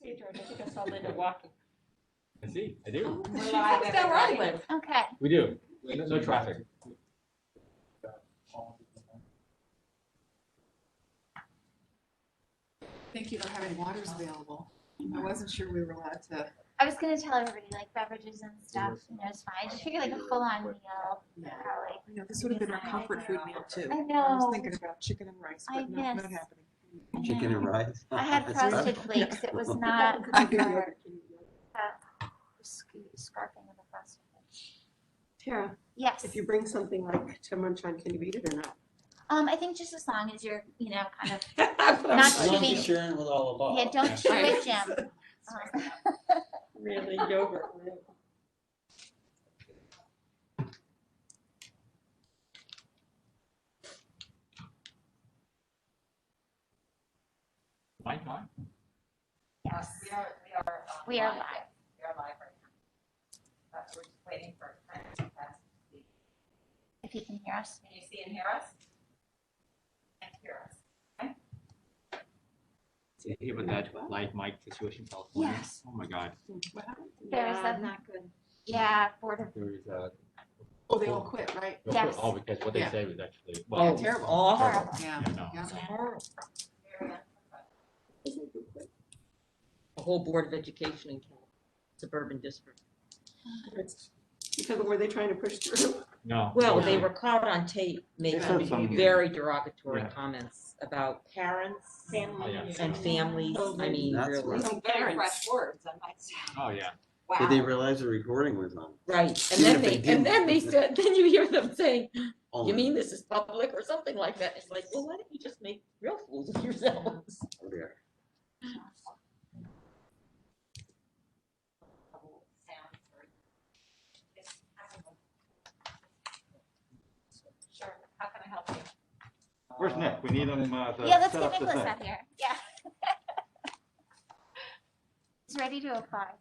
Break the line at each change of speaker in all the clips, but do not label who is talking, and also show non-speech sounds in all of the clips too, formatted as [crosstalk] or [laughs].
see, George, I think I saw Linda walking.
I see, I do.
She walks down Rodwood.
[laughs]
Okay,
We do. No no traffic.
Thank you for having waters available. I wasn't sure we were allowed to.
I was gonna tell everybody like beverages and stuff, you know, it's fine, I just figured like a full-on meal, probably.
You know, this would have been our comfort food meal too.
I
I was
know,
thinking about chicken and rice,
I
but no, not
guess.
happening.
Chicken and rice.
I had
That's tough.
frosted flakes, it was
[laughs]
not.
I do.
for, uh, sc- Scarfing of the frosted flakes.
Tara,
Yes,
if you bring something like to Munchon, can you eat it or not?
um, I think just as long as you're, you know, kind of,
That's what I'm
Not
As long as
cheating.
you're sharing with all of us.
yeah, don't chew it, Jim. Um,
Really yogurt. really.
Fine, fine.
Yes,
We are, we are. um,
we are live.
We are live right now. But we're just waiting for. Can
If you can hear us,
you see and hear us? And hear us.
Did you hear about that light mic situation in California?
Yes.
Oh my God,
There's
Yeah,
a-
Not good.
yeah, Board of,
there is uh, a.
Oh, they all quit, right?
Yes.
Oh, because what they
Yeah.
said was actually.
Yeah,
Oh.
well,
terrible.
Awful.
Horrible.
Yeah.
I know.
Yeah.
Very unpleasant.
the whole Board of Education in Cal- suburban district.
It's Because of where they trying to push through.
No.
Well, they
Yeah.
were caught on tape
said
making
something.
very derogatory
Yeah.
comments about parents
Oh, yeah.
and families. I mean,
That's
really.
right.
Some
Very
parents.
fresh words, I might say.
Oh, yeah.
Did they
Wow.
realize the recording was on?
Right, and
Even
then
if
they,
they
and
didn't.
then they said, then you hear them saying,
Oh,
you mean this is public or something like that? It's like, well, why don't you just make real fools of yourselves?
oh, dear.
Double sound for- Yes, I don't know. Sure, how can I help you?
Where's Nick? We need him uh, to
yeah, let's
set
get
up the
Nicholas
thing.
up here, yeah. [laughs] He's ready to apply.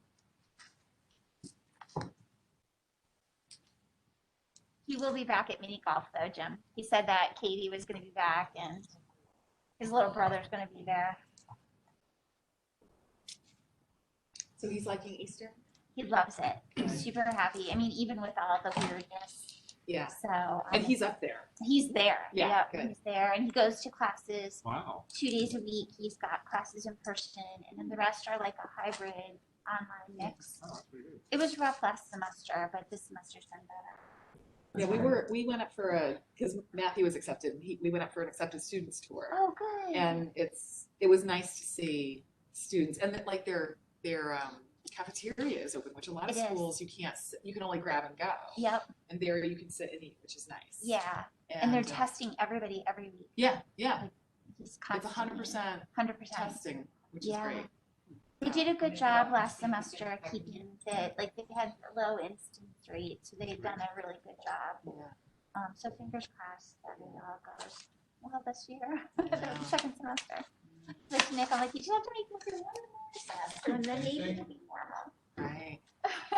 He will be back at mini golf though, Jim. He said that Katie was gonna be back and his little brother's gonna be there.
So he's liking Easter?
He loves it. He's super happy. I mean, even with all the weirdness,
Yeah.
so. um,
And he's up there.
He's there.
Yeah,
Yep,
good.
He's there and he goes to classes
Wow.
two days a week. He's got classes in person and then the rest are like a hybrid online mix.
Oh,
It was rough last semester, but this semester's been better.
Yeah, we were, we went up for a, because Matthew was accepted, he, we went up for an accepted students tour.
Oh, good.
And it's, it was nice to see students and that like their, their um, cafeteria is open, which a lot of
It is.
schools you can't, s- you can only grab and go.
Yep,
And there you can sit and eat, which is nice.
yeah. And they're
uh,
testing everybody every week.
Yeah, yeah.
It's
It's hundred percent
Hundred percent.
testing, which is
Yeah.
great.
They did a good job last semester keeping the, like, they had low instance rate, so they had done a really good job. Um, so fingers crossed that it all goes well this year, [laughs]
Yeah.
second semester. Like Nick, I'm like, you just have to make it through one more semester and then maybe it'll be normal.
Right.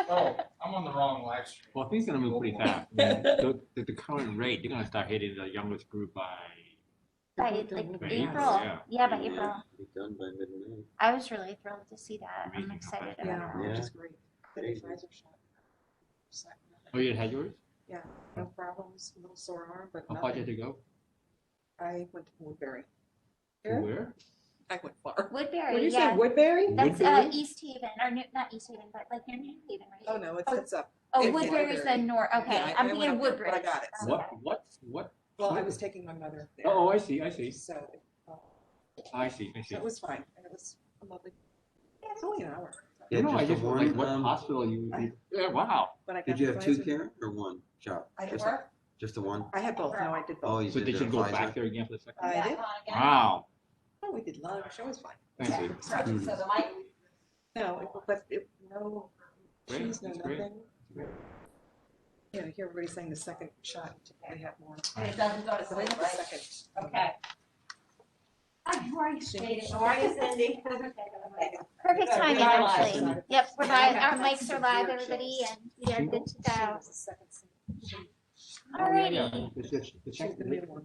Oh, I'm on the wrong live stream.
Well, things are gonna move pretty [laughs] fast. I mean, The, the- the current rate, they're gonna start hitting the youngest group by.
By
by
like
April,
April,
yeah.
yeah, by
Yeah.
April.
Be done by midnight.
I was really thrilled to see that. I'm
Amazing how
excited
fast
about
that
it.
Yeah.
Which is great. But his eyes are shut. Just like,
Oh, you had yours?
No problems, a little sore arm, but
How far did
nothing.
you go?
I went to Woodbury.
To
Here?
Where?
I went far.
What do
Woodbury,
you say,
yeah,
[laughs] Woodbury?
that's, uh, East Haven, or New- not East Haven, but like near New Haven, right?
Oh, no, it's,
Oh.
it's up.
Oh,
It-
Woodbury's the
Woodbury.
north, okay,
Yeah, I-
I'm
I went
thinking
up there,
Woodbury.
but I got it.
Okay.
What, what, what?
Well, I was taking my mother there.
Oh, I see, I see,
So it-
I see, I see.
so it was fine. And it was a lovely, it's only an hour.
Yeah,
No, I
just the
just,
one,
like, what
um,
hospital you, you- yeah, wow.
But I got
Did you
the
have two,
Pfizer.
Karen, or one shot?
I had
Just,
both.
just the one?
I had both. No, I did
Oh,
both.
you
So
did
they
the
should go
Pfizer?
back there again for the second?
I
Back
did.
on again?
Wow,
Oh, we did lunch. It was fine.
thank
Yeah,
you.
So
Hmm.
so the mic,
No, it- but it, no,
Great,
cheese, no
that's great.
nothing. You know, here everybody's saying the second shot, we have more.
it doesn't go to
So they
sleep,
have the
right?
second.
Okay. Hi, how are you?
Cindy.
How are you, [laughs] Cindy?
Perfect
Good,
timing,
we're live.
actually. Yep, we're live, our
Okay.
mics are live, everybody, and we are good to
She
go.
was the second.
Alrighty.
Yeah, it's- it's- it's-
She's the new one.